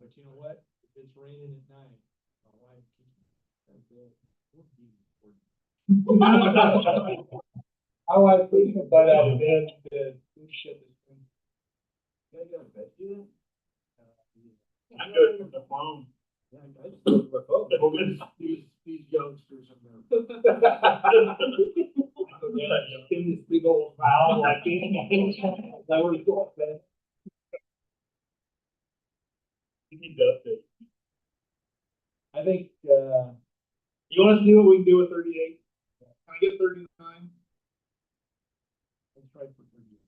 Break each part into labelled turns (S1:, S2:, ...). S1: But you know what? If it's raining at night, my wife keeps, says, "Well, we'll be recording."
S2: How I think about our bed, the cruise ship is.
S1: Can I go to bed yet? Uh, yeah. Oh,
S2: I do it from the phone.
S1: Yeah, I just look at my phone. Well, these- These, these youngsters are there.
S2: In this big old valve like. That was going bad. You need to update.
S1: I think, uh,
S2: You want us to do what we can do with thirty-eight? Can I get thirty-nine?
S1: let's try for Virginia.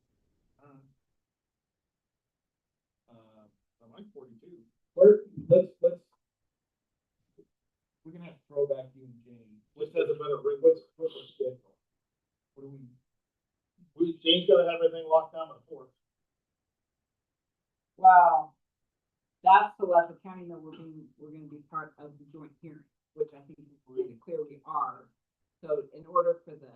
S1: Uh, I like forty-two.
S2: Or, let's, let's,
S1: We're gonna have to throw back you and Jane.
S2: let's have a better, ring. what's, what's our schedule?
S1: What do we,
S2: We, James gotta have everything locked down before.
S3: Wow. That's the Letha County that we're being, we're gonna be part of the joint hearing, which I think is pretty clear we are. So in order for the,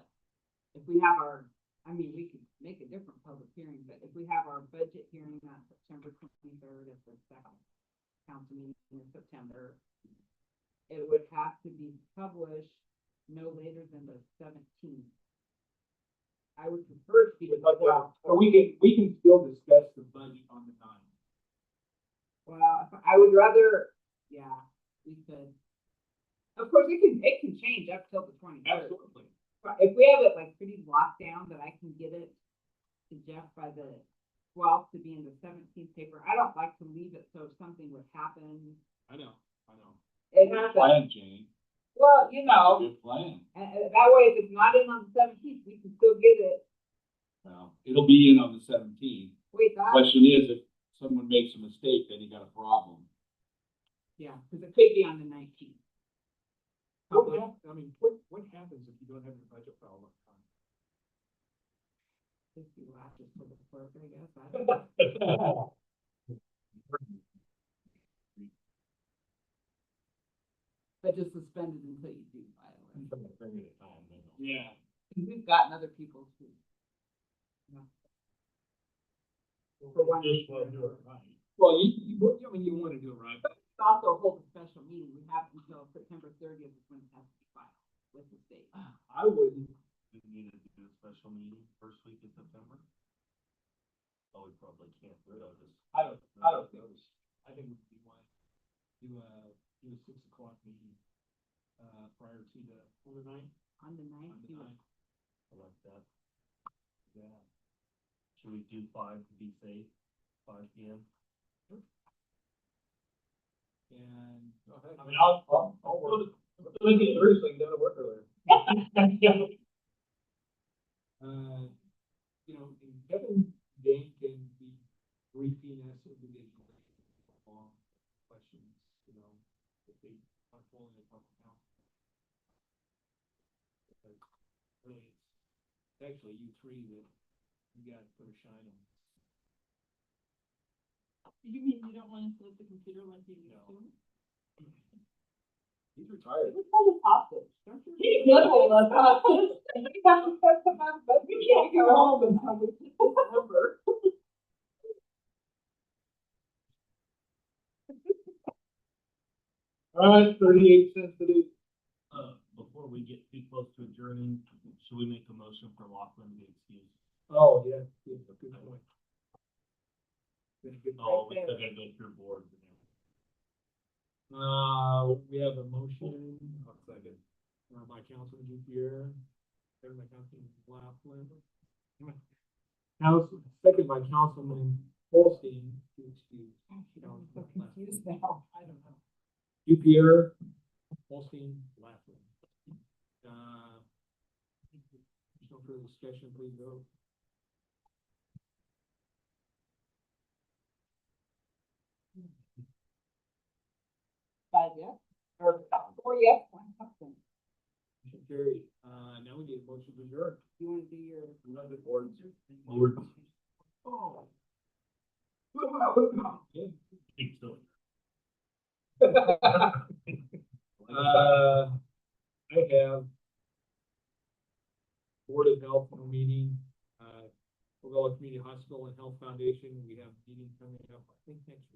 S3: if we have our, I mean, we could make a different public hearing, but if we have our budget hearing on September twenty-third at the second council meeting in September, it would have to be published no later than the seventeenth. I would prefer to be.
S1: Well, or we can, we can still discuss the budget on the nine.
S3: Well, if- I would rather, yeah, we could. Of course, it can, it can change up till the twenty third.
S1: Absolutely.
S3: If we have it like pretty locked down that I can get it to Jeff by the twelfth to be in the seventeenth paper, I don't like to leave it, so if something would happen.
S1: I know, I know.
S3: It happens,
S1: Plan, Jane.
S3: well, you know,
S1: Good plan.
S3: and, and that way if it's not in on the seventeenth, we can still get it.
S1: Well, it'll be in on the seventeenth.
S3: Wait, that,
S1: Question is, if someone makes a mistake, then you got a problem.
S3: yeah, cause it could be on the nineteenth.
S1: What hap, I mean, what, what happens if you don't have your budget file on time?
S3: If you have to put it forward, I guess, I don't know. But just suspend it until you do file it.
S2: Yeah.
S3: We've gotten other people to. For one
S2: Just
S3: reason or
S2: wanna do it
S3: another.
S2: right.
S1: Well, you, you, I mean, you wanna do it right.
S3: It's Also hold a special meeting. We have until September thirtieth is when it has to be filed with the state.
S1: I wouldn't.
S4: We need to do a special meeting first week in September? Oh, we probably can't, we don't just.
S1: I don't, I don't think, we should. I think we would be one, do a, do a six o'clock meeting, uh, prior to the, on the ninth,
S3: On the ninth,
S1: on the
S3: you would-
S1: ninth.
S4: I like that.
S1: Yeah.
S4: Should we do five to be safe, five P M?
S1: And.
S2: I mean, I'll, I'll, I'll work. Look at yours, like, that'll work earlier.
S1: Uh, you know, and Kevin, Jane can be briefing us individually on questions, you know, if they are falling in public now. Because Really, it's actually you three that you gotta put a shine on.
S5: You mean you don't want us to let the computer like you used
S1: No.
S5: to?
S1: He's retired.
S3: We call it hostage, don't you?
S5: He
S3: We have to set them up, but we can't go home until we get this number.
S2: All right, thirty-eight cents to do.
S4: Uh, before we get too close to adjourning, should we make a motion for Lachlan to be excused?
S1: Oh, yeah, yeah, good point. Been a good-
S4: Oh, we still gotta go through boards and everything.
S1: Uh, we have a motion, I'll second, uh, by Councilman Dupierre, second by Councilman Laughlin. Council, second by Councilman Holstein, to excuse
S3: I'm so confused now. I don't know.
S1: Dupierre, Holstein, Laughlin. Uh, there's no further discussion, please vote.
S3: Five yes, or uh, four yes, one absent.
S1: Motion carried, uh, now we need a motion to adjourn.
S3: You wanna do your?
S1: Another board.
S4: Board,
S1: Oh. Yeah.
S4: keep going.
S1: Uh, I have Board of Health meeting, uh, Covella Community Hospital and Health Foundation, we have a meeting coming up, I think next